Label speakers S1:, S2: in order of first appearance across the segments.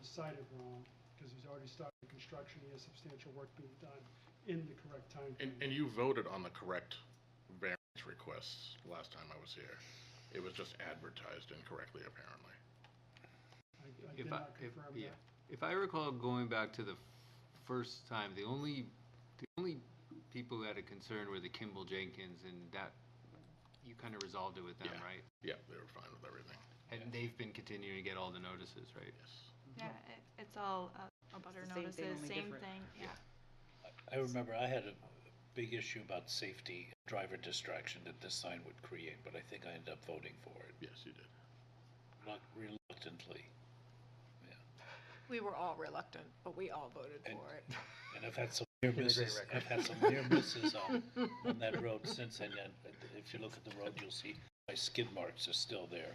S1: decided wrong, because he's already started construction, he has substantial work being done in the correct time.
S2: And, and you voted on the correct variance requests last time I was here. It was just advertised incorrectly, apparently.
S1: I I did
S3: If I,
S1: not
S3: if,
S1: confirm
S3: yeah,
S1: that.
S3: if I recall going back to the f- first time, the only, the only people that had concern were the Kimball Jenkins and that, you kind of resolved it with them,
S2: Yeah.
S3: right?
S2: Yeah, they were fine with everything,
S3: And they've been continuing to get all the notices, right?
S2: yes.
S4: Yeah, it, it's all, uh, a butter
S5: the same
S4: notices,
S5: thing, only
S4: same
S5: different.
S4: thing, yeah.
S6: I remember I had a big issue about safety, driver distraction that this sign would create, but I think I ended up voting for it,
S2: Yes, you did.
S6: not reluctantly.
S7: We were all reluctant, but we all voted
S6: And-
S7: for it.
S6: And I've had some near
S3: a great
S6: misses,
S3: record.
S6: I've had some near misses on, on that road since, and then, uh, if you look at the road, you'll see my skid marks are still there.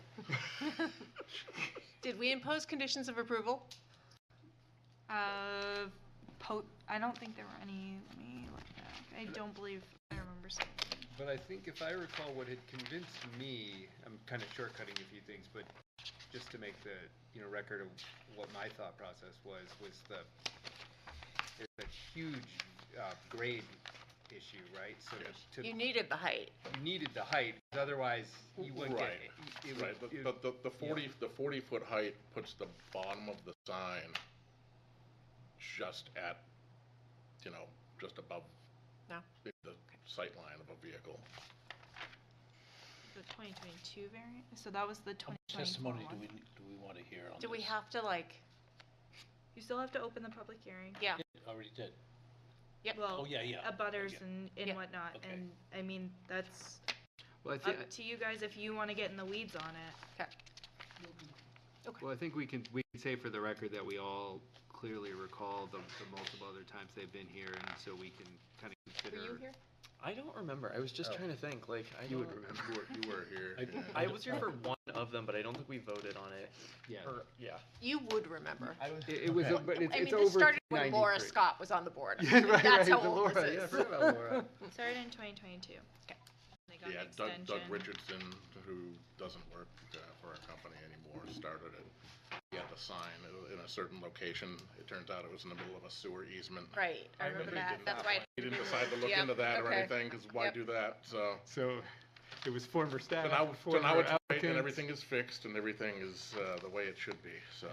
S7: Did we impose conditions of approval?
S4: Uh, po, I don't think there were any, let me look back, I don't believe, I remember seeing.
S3: But I think if I recall, what had convinced me, I'm kind of shortcutting a few things, but just to make the, you know, record of what my thought process was, was the, there's a huge uh, grade issue, right? So to-
S2: Yes.
S3: to,
S5: You needed the height.
S3: you needed the height, 'cause otherwise you wouldn't get.
S2: Right.
S3: it- it would-
S2: Right,
S3: it-
S2: but the, the forty, the forty-foot height puts the bottom of the sign just at, you know, just above
S7: No.
S2: the the sight line of a vehicle.
S4: The twenty twenty-two variant, so that was the
S6: How
S4: twenty
S6: much
S4: twenty-four
S6: testimony do we,
S4: one.
S6: do we want to hear on this?
S5: Do we have to like,
S4: You still have to open the public hearing.
S5: yeah,
S6: Already did.
S5: Yep.
S6: Oh,
S4: Well,
S6: yeah, yeah.
S4: abutters
S6: yeah.
S4: and, and
S5: Yeah.
S4: whatnot,
S6: Okay.
S4: and, I mean, that's
S8: Well, I think,
S4: up to you guys if you wanna get in the weeds on it.
S8: well, I think we can, we can say for the record that we all clearly recall the, the multiple other times they've been here, and so we can kind of
S7: Were
S8: consider.
S7: you here?
S9: I don't remember. I was just
S2: Oh.
S9: trying to think. Like I
S2: You would
S9: don't-
S2: remember, you were, you were here.
S6: I-
S2: yeah.
S9: I was here for one of them, but I don't think we voted on it.
S8: Yeah.
S9: Or, yeah.
S7: You would remember.
S8: It, it was, o-
S2: Okay.
S8: but it's,
S7: I mean,
S8: it's
S7: this
S8: over
S7: started when Laura
S8: 93.
S7: Scott was on the board.
S8: Yeah, right, right,
S7: That's how
S8: the
S7: old
S8: Laura,
S7: this
S8: yeah, I
S7: is.
S8: forgot about Laura.
S4: Started in twenty twenty-two. They got
S2: Yeah,
S4: an
S2: Doug, Doug
S4: extension.
S2: Richardson, who doesn't work uh, for our company anymore, started it. He had the sign i- in a certain location. It turns out it was in the middle of a sewer easement.
S5: right, I
S2: And
S5: remember
S2: he
S5: that,
S2: did
S5: that's
S2: not-
S5: why.
S2: He didn't decide to look into that or
S5: okay.
S2: anything, because why
S5: Yep.
S2: do that, so.
S3: So it was former staff.
S2: So now, so
S3: former
S2: now it's right, and
S3: applicants.
S2: everything is fixed, and everything is uh, the way it should be, so.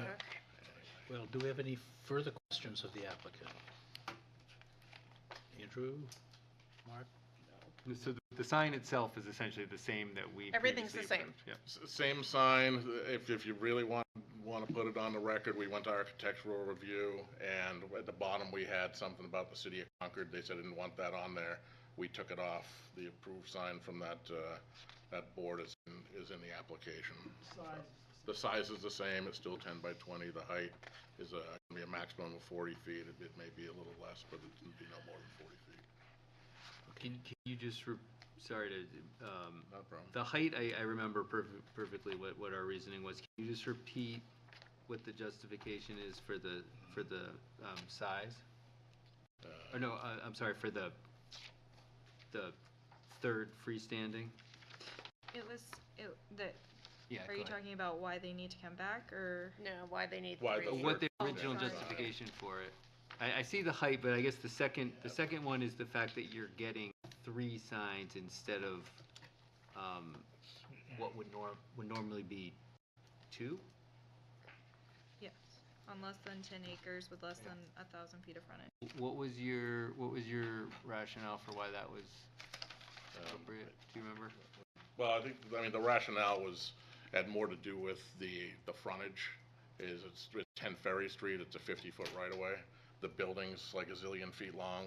S6: Well, do we have any further questions of the applicant? Andrew? Mark?
S3: So the, the sign itself is essentially the same that we.
S7: Everything's the
S3: previously
S7: same.
S3: approved, Yeah.
S2: S- Same sign, if, if you really want, want to put it on the record, we went to architectural review, and at the bottom, we had something about the city of Concord, they said they didn't want that on there. We took it off, the approved sign from that, uh, that board is, in- is in the application.
S1: Size is
S2: The size is the same, it's still ten by twenty, the height is a, gonna be a maximum of forty feet, it, it may be a little less, but it'd be no more than forty feet,
S8: Can, can you just, re- sorry to, um,
S2: not a problem.
S8: the height, I, I remember perf- perfectly what, what our reasoning was. Can you just repeat what the justification is for the, for the, um, size? Or no, uh, I'm sorry, for the, the third freestanding?
S4: It was, it, the,
S8: Yeah,
S4: are
S8: go
S4: you
S8: ahead.
S4: talking about why they need to come back, or?
S5: No, why they need
S2: Why the
S5: three.
S8: What the
S4: Oh,
S8: original
S4: sorry.
S8: justification for it? I, I see the height, but I guess the second, the second one is the fact that you're getting three signs instead of, um, what would norm, would normally be two?
S4: Yes, on less than ten acres with less than a thousand feet of frontage.
S8: What was your, what was your rationale for why that was
S2: Um,
S8: appropriate? Do you remember?
S2: Well, I think, I mean, the rationale was, had more to do with the, the frontage, is it's it's 10 Ferry Street, it's a 50-foot right-of-way. The building's like a zillion feet long,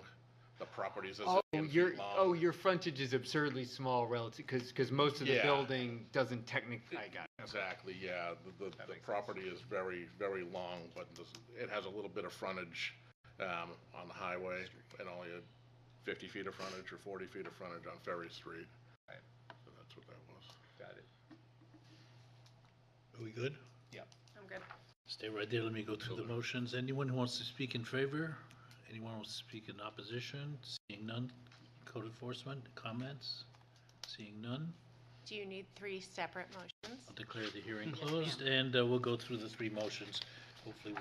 S2: the property's a
S3: Oh,
S2: zillion
S3: your,
S2: feet long.
S3: oh, your frontage is absurdly small relative, because, because most of the
S2: Yeah.
S3: building doesn't technically, I got it.
S2: Exactly, yeah, the, the, the property is very, very long, but this- it has a little bit of frontage um, on the highway, and only a 50 feet of frontage or 40 feet of frontage on Ferry Street.
S3: Right.
S2: So that's what that was.
S3: Got it.
S6: Are we good?
S5: I'm good.
S6: Stay right there, let me go through the motions. Anyone who wants to speak in favor? Anyone who wants to speak in opposition? Seeing none, code enforcement, comments? Seeing none,
S5: Do you need three separate motions?
S6: I'll declare the hearing closed, and uh, we'll go through the three motions. Hopefully,